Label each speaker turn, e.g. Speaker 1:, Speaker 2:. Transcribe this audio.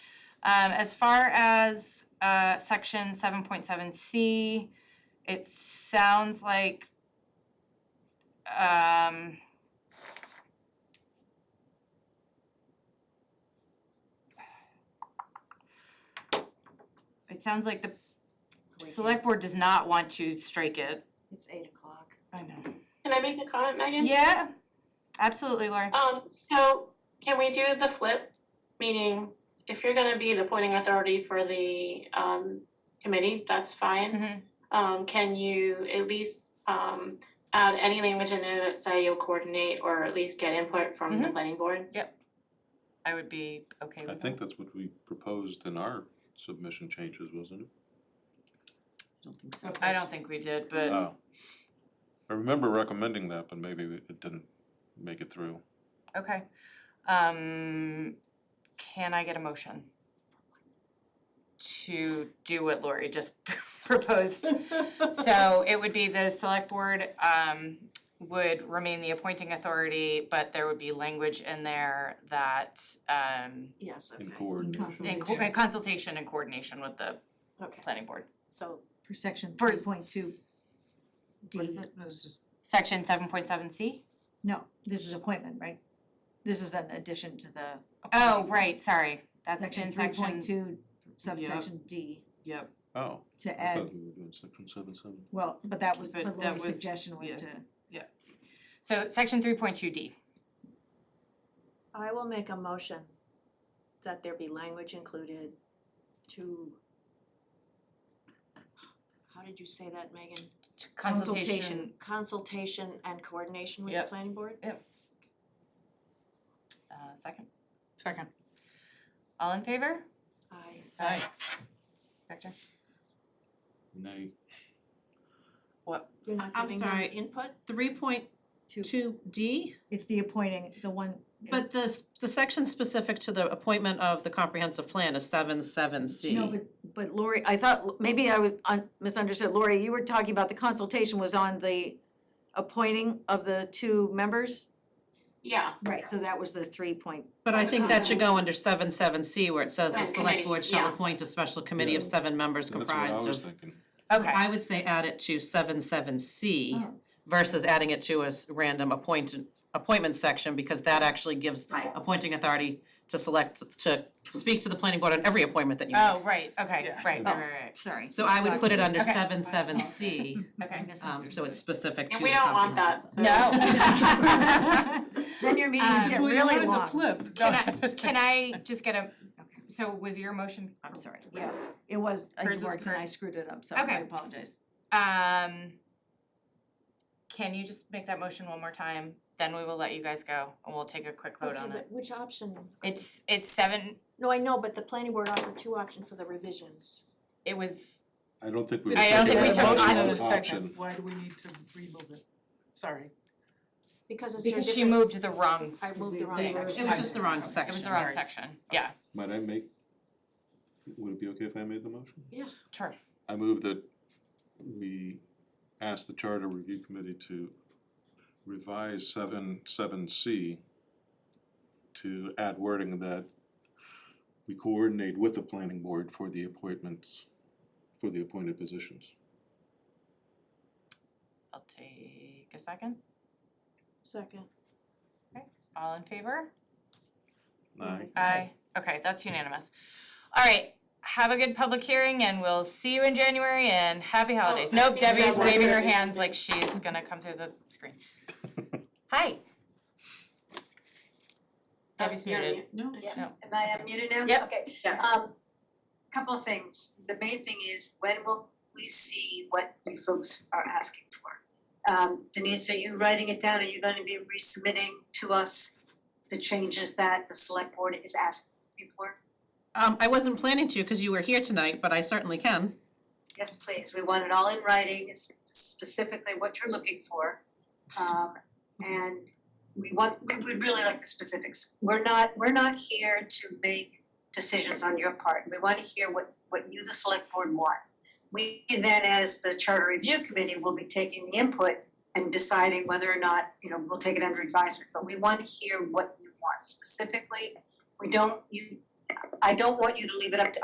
Speaker 1: Um, as far as, uh, section seven point seven C, it sounds like, um, it sounds like the select board does not want to strike it.
Speaker 2: It's eight o'clock.
Speaker 1: I know.
Speaker 3: Can I make a comment, Megan?
Speaker 1: Yeah, absolutely, Lauren.
Speaker 3: Um, so can we do the flip? Meaning, if you're gonna be the appointing authority for the um committee, that's fine.
Speaker 1: Mhm.
Speaker 3: Um, can you at least um add any language in there that say you'll coordinate or at least get input from the planning board?
Speaker 1: I would be okay
Speaker 4: I
Speaker 1: with
Speaker 4: think
Speaker 1: that.
Speaker 4: that's what we proposed in our submission changes, wasn't it?
Speaker 2: I don't think so.
Speaker 1: I don't think we did, but
Speaker 4: Oh. I remember recommending that, but maybe we- it didn't make it through.
Speaker 1: okay. Um, can I get a motion? To do what Lori just proposed. So it would be the select board um would remain the appointing authority, but there would be language in there that um
Speaker 2: Yes, okay.
Speaker 4: In coordination.
Speaker 1: in co- in consultation and coordination with the
Speaker 2: Okay,
Speaker 1: planning board.
Speaker 2: so for section
Speaker 1: For
Speaker 2: three point two D.
Speaker 1: what is it?
Speaker 2: This is,
Speaker 1: Section seven point seven C?
Speaker 2: no, this is appointment, right? This is an addition to the.
Speaker 1: Oh,
Speaker 2: appointment.
Speaker 1: right, sorry, that's in
Speaker 2: three
Speaker 1: section,
Speaker 2: point two subsection D
Speaker 5: Yep,
Speaker 4: Oh,
Speaker 2: to
Speaker 4: I
Speaker 2: add,
Speaker 4: thought we were doing section seven seven.
Speaker 2: well, but that was,
Speaker 5: But
Speaker 2: but
Speaker 5: that
Speaker 2: Lori's
Speaker 5: was-
Speaker 2: suggestion was
Speaker 5: yeah.
Speaker 2: to.
Speaker 1: so section three point two D.
Speaker 6: I will make a motion that there be language included to. How did you say that, Megan?
Speaker 1: Consultation,
Speaker 6: Consultation and coordination with the
Speaker 5: Yep.
Speaker 6: planning board?
Speaker 1: uh, second,
Speaker 5: second.
Speaker 1: all in favor?
Speaker 6: I,
Speaker 5: Aye.
Speaker 1: Victor?
Speaker 4: Nay,
Speaker 6: you're not
Speaker 7: I'm
Speaker 6: giving them
Speaker 7: sorry.
Speaker 6: input?
Speaker 7: Three point two D,
Speaker 2: It's the appointing, the one.
Speaker 7: but the, s- the section specific to the appointment of the comprehensive plan is seven seven C.
Speaker 2: No, but
Speaker 6: But Lori, I thought, maybe I was un- misunderstood, Lori, you were talking about the consultation was on the appointing of the two members?
Speaker 3: Yeah,
Speaker 6: Right, so that was the three point,
Speaker 7: But I think that should go under seven seven C where it says the
Speaker 3: Right,
Speaker 7: select
Speaker 3: committee,
Speaker 7: board shall
Speaker 3: yeah.
Speaker 7: appoint a special committee of
Speaker 4: Yeah.
Speaker 7: seven members
Speaker 4: that's what I
Speaker 7: comprised
Speaker 4: was
Speaker 7: of.
Speaker 4: thinking.
Speaker 1: Okay,
Speaker 7: I would say add it to seven seven C
Speaker 2: Oh.
Speaker 7: versus adding it to a s- random appoint, appointment section because that actually gives appointing authority to select, to speak to the planning board on every appointment that you make.
Speaker 1: oh, right, okay,
Speaker 5: Yeah.
Speaker 1: right, right,
Speaker 4: Oh.
Speaker 1: right,
Speaker 2: Sorry.
Speaker 7: So I would put it under
Speaker 1: Okay.
Speaker 7: seven seven C.
Speaker 1: right, okay.
Speaker 7: Um, so it's specific to
Speaker 3: and we
Speaker 7: the
Speaker 3: don't want
Speaker 7: comprehensive.
Speaker 3: that, so.
Speaker 1: No.
Speaker 6: then your meetings
Speaker 1: Um,
Speaker 6: get really long.
Speaker 5: flip.
Speaker 1: Can I, can I just get a, so was your motion?
Speaker 2: I'm sorry.
Speaker 6: Yeah, it was, uh,
Speaker 1: Hers
Speaker 6: it
Speaker 1: is
Speaker 6: worked and I
Speaker 1: correct.
Speaker 6: screwed it up, so I
Speaker 1: Okay.
Speaker 6: apologize.
Speaker 1: Um, can you just make that motion one more time? Then we will let you guys go and we'll take a quick vote on
Speaker 6: Okay,
Speaker 1: it.
Speaker 6: but which option?
Speaker 1: It's, it's seven,
Speaker 6: No, I know, but the planning board offered two options for the revisions.
Speaker 1: it was,
Speaker 4: I don't think we.
Speaker 1: I don't
Speaker 4: taking
Speaker 1: think we
Speaker 4: a
Speaker 1: took
Speaker 4: motion
Speaker 1: either
Speaker 4: on
Speaker 1: the
Speaker 4: option.
Speaker 5: Why do we need to remove it? Sorry.
Speaker 6: Because it's a
Speaker 1: because she
Speaker 6: different-
Speaker 1: moved the wrong,
Speaker 6: I moved the wrong
Speaker 1: thing.
Speaker 6: section.
Speaker 7: It was just the wrong
Speaker 1: it
Speaker 7: section.
Speaker 1: was the wrong
Speaker 7: Sorry.
Speaker 1: section. Yeah,
Speaker 4: Might I make, would it be okay if I made the motion?
Speaker 1: sure.
Speaker 4: I move that we ask the Charter Review Committee to revise seven seven C to add wording that we coordinate with the planning board for the appointments, for the appointed positions.
Speaker 1: I'll take a second.
Speaker 6: Second.
Speaker 1: All in favor?
Speaker 4: Aye.
Speaker 1: Aye. Okay, that's unanimous. All right, have a good public hearing and we'll see you in January and Oh, happy holidays.
Speaker 3: I
Speaker 1: Nope,
Speaker 3: think that
Speaker 1: Debbie's
Speaker 3: was
Speaker 1: waving her
Speaker 3: everything.
Speaker 1: hands like she's gonna come through the screen. Hi. Debbie's
Speaker 3: You're
Speaker 1: muted.
Speaker 3: mute.
Speaker 7: No.
Speaker 1: No.
Speaker 8: Yes, am I unmuted now?
Speaker 1: Yep.
Speaker 8: Okay.
Speaker 3: Yeah.
Speaker 8: Um, couple of things. The main thing is, when will we see what you folks are asking for? Um, Denise, are you writing it down? Are you gonna be resubmitting to us the changes that the select board is asking for?
Speaker 7: Um, I wasn't planning to because you were here tonight, but I certainly can.
Speaker 8: Yes, please. We want it all in writing, it's specifically what you're looking for. Um, and we want, we would really like the specifics. We're not, we're not here to make decisions on your part. We want to hear what, what you, the select board, want. We then, as the charter review committee, will be taking the input and deciding whether or not, you know, we'll take it under advisement. But we want to hear what you want specifically. We don't, you, I don't want you to leave it up to